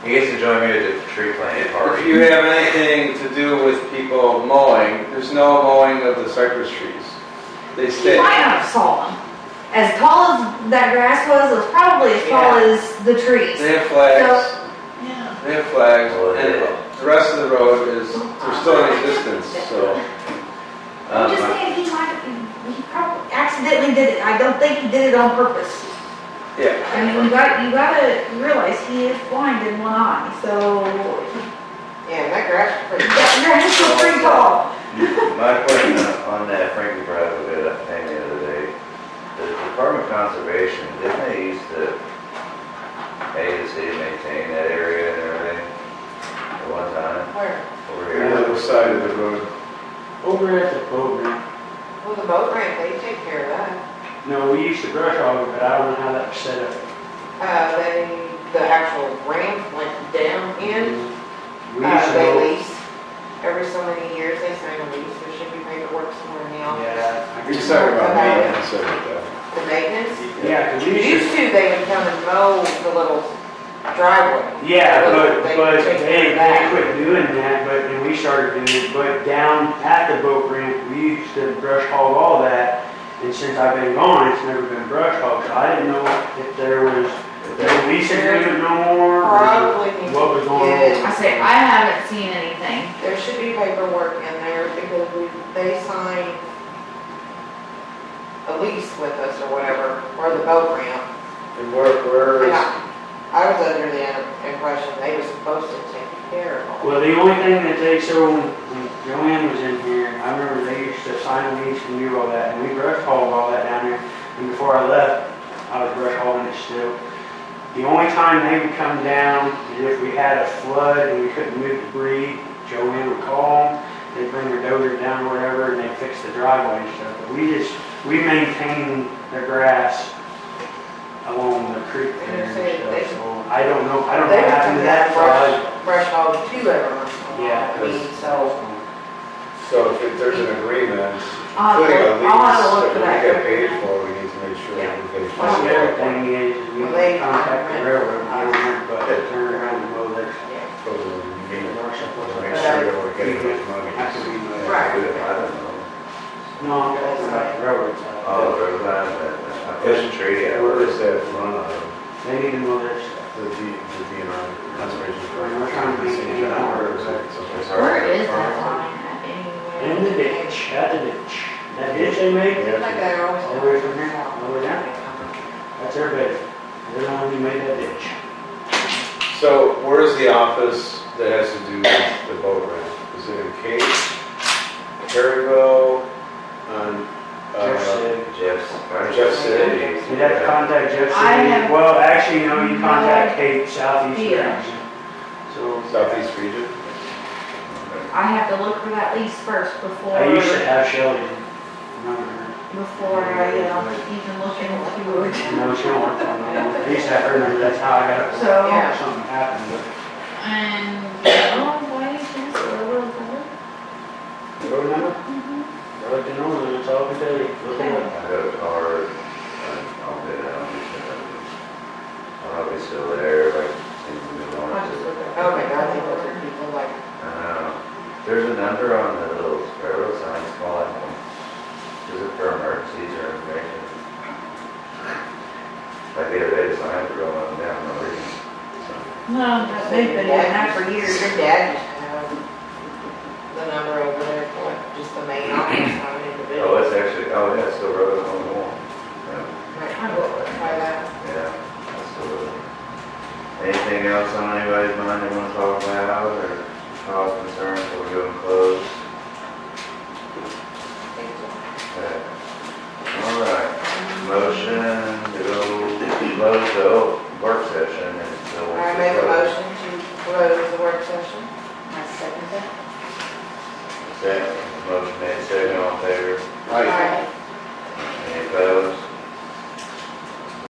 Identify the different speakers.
Speaker 1: He gets to join me at the tree planting
Speaker 2: If
Speaker 1: party.
Speaker 2: you have anything to do with people mowing, there's no mowing of the cypress trees. They
Speaker 3: You
Speaker 2: stay.
Speaker 3: might not have saw them. As tall as that grass was, it was probably as tall
Speaker 4: Yeah.
Speaker 3: as the trees.
Speaker 2: They have flags,
Speaker 4: Yeah.
Speaker 2: they have flags,
Speaker 1: Well, there you go.
Speaker 2: and the rest of the road is, they're still in existence, so.
Speaker 3: I'm just
Speaker 2: um,
Speaker 3: saying, he might, he probably accidentally did it. I don't think he did it on purpose.
Speaker 2: Yeah,
Speaker 3: I mean, you got, you gotta realize he is blind in one eye, so
Speaker 4: Yeah, that grass is pretty
Speaker 3: that grass was pretty tall.
Speaker 1: My question on that Frankie brought up a good thing the other day, the Department of Conservation, didn't they used to pay the city to maintain that area and everything at one time
Speaker 4: Where?
Speaker 1: over
Speaker 2: on the
Speaker 1: here?
Speaker 2: other side of the road.
Speaker 5: Over at the boat ramp.
Speaker 4: Well, the boat ramp, they take care of that.
Speaker 5: No, we used to brush hog it, but I don't know how that was set up.
Speaker 4: Uh, they, the actual ramp went down in,
Speaker 5: We
Speaker 4: uh,
Speaker 5: used
Speaker 4: they
Speaker 5: to,
Speaker 4: lease. Every so many years, they sign a lease, there should be paperwork somewhere in the office.
Speaker 5: yeah. I
Speaker 2: You're
Speaker 5: guess-
Speaker 2: just talking about maintenance of it, though.
Speaker 4: The maintenance,
Speaker 5: Yeah, 'cause we used
Speaker 4: used to, they would come and mow the little driveway.
Speaker 5: to, yeah, but,
Speaker 4: They-
Speaker 5: but
Speaker 4: they
Speaker 5: they,
Speaker 4: came
Speaker 5: they
Speaker 4: back.
Speaker 5: quit doing that, but then we started doing it, but down at the boat ramp, we used to brush hog all that. And since I've been gone, it's never been brush hogged, so I didn't know if there was, if there was lease agreement no more, or
Speaker 4: Probably need
Speaker 5: what was going
Speaker 4: Yeah.
Speaker 5: on.
Speaker 3: I say, I haven't seen anything.
Speaker 4: There should be paperwork in there because we, they sign a lease with us or whatever, or the boat ramp.
Speaker 2: And where, where
Speaker 4: And
Speaker 2: is,
Speaker 4: I I was under the impression they were supposed to take care of all.
Speaker 5: Well, the only thing that they, so when Joanne was in here, I remember they used to sign a lease and do all that, and we brush hauled all that down there. And before I left, I was brush hauling it still. The only time they would come down is if we had a flood and we couldn't move debris, Joanne would call them, they'd bring their dozer down or whatever, and they'd fix the driveway and stuff. But we just, we maintain the grass along the creek there and stuff, so I don't know, I don't know
Speaker 4: They
Speaker 5: what
Speaker 4: would come
Speaker 5: happened
Speaker 4: down
Speaker 5: to that
Speaker 4: and
Speaker 5: flood.
Speaker 4: brush, brush hog too every once in a while.
Speaker 5: Yeah,
Speaker 4: I mean, so,
Speaker 2: so if there's an agreement,
Speaker 3: I'll,
Speaker 2: putting a
Speaker 3: have to- I'll have to
Speaker 2: lease,
Speaker 3: look
Speaker 2: if we
Speaker 3: for that.
Speaker 2: get paid for, we need to make sure
Speaker 3: Yeah.
Speaker 2: we get
Speaker 5: Well, the other
Speaker 2: paid
Speaker 5: thing is, is we contact the railroad, I don't know, but they turn around and go there.
Speaker 4: yeah.
Speaker 2: for the meeting. Make sure
Speaker 5: Have
Speaker 2: that we're getting enough
Speaker 5: to
Speaker 2: money.
Speaker 5: be, uh,
Speaker 4: Right.
Speaker 1: I don't know.
Speaker 5: no, I'm talking about the railroad
Speaker 1: Oh,
Speaker 5: side.
Speaker 1: there was that, I pushed a tree out. Um,
Speaker 2: Where is that run of
Speaker 5: They need to know their stuff.
Speaker 2: the D, the DNR conservation?
Speaker 5: We're trying to be-
Speaker 2: City of Allen, or is that something?
Speaker 3: Where is that line at anyway?
Speaker 5: In the ditch, at the ditch, that ditch they made,
Speaker 4: Like
Speaker 2: Yeah.
Speaker 4: that always.
Speaker 5: all the way from here, all the way down, that's their bed. They're the ones who made that ditch.
Speaker 2: So where is the office that has to do with the boat ramp? Is it in Cape, Perryville, on,
Speaker 5: Jeff
Speaker 2: uh,
Speaker 5: said,
Speaker 1: Jeff's.
Speaker 2: Jeff City?
Speaker 5: you'd have to contact Jeff
Speaker 3: I
Speaker 5: City,
Speaker 3: have-
Speaker 5: well, actually, no, you
Speaker 3: No
Speaker 5: contact Cape Southeast
Speaker 3: idea.
Speaker 5: Region. So,
Speaker 2: Southeast Region?
Speaker 3: I have to look for that lease first before,
Speaker 5: I used to have Sheldon, remember her?
Speaker 3: before I, you know, even look into it.
Speaker 5: No, she don't work for me. At least I heard her, that's how I got, it.
Speaker 3: So,
Speaker 4: Yeah.
Speaker 5: something happened, but.
Speaker 3: and, oh, why is this, where was that?
Speaker 5: Road number? Road to Norman, that's all I can tell you. Look it up.
Speaker 1: I got a card, I- I'll get it out. I'll probably still there, like, seems to be
Speaker 3: I'll just
Speaker 1: wanting
Speaker 3: look it up.
Speaker 4: Oh my God, they look at people like,
Speaker 1: I don't know. There's a number on the little railroad signs calling them. Is it for emergencies or information? Like the other day, the signs were going up and down, no reason. So,
Speaker 3: No, they've been doing that for
Speaker 4: your
Speaker 3: years.
Speaker 4: your dad used to have the number over there for just the main office, not an individual.
Speaker 1: Oh, it's actually, oh, yeah, it's still rolling on the wall. Yeah,
Speaker 4: Might try that.
Speaker 1: yeah, it's still rolling. Anything else on anybody's mind they wanna talk about or cause concern before we go and close?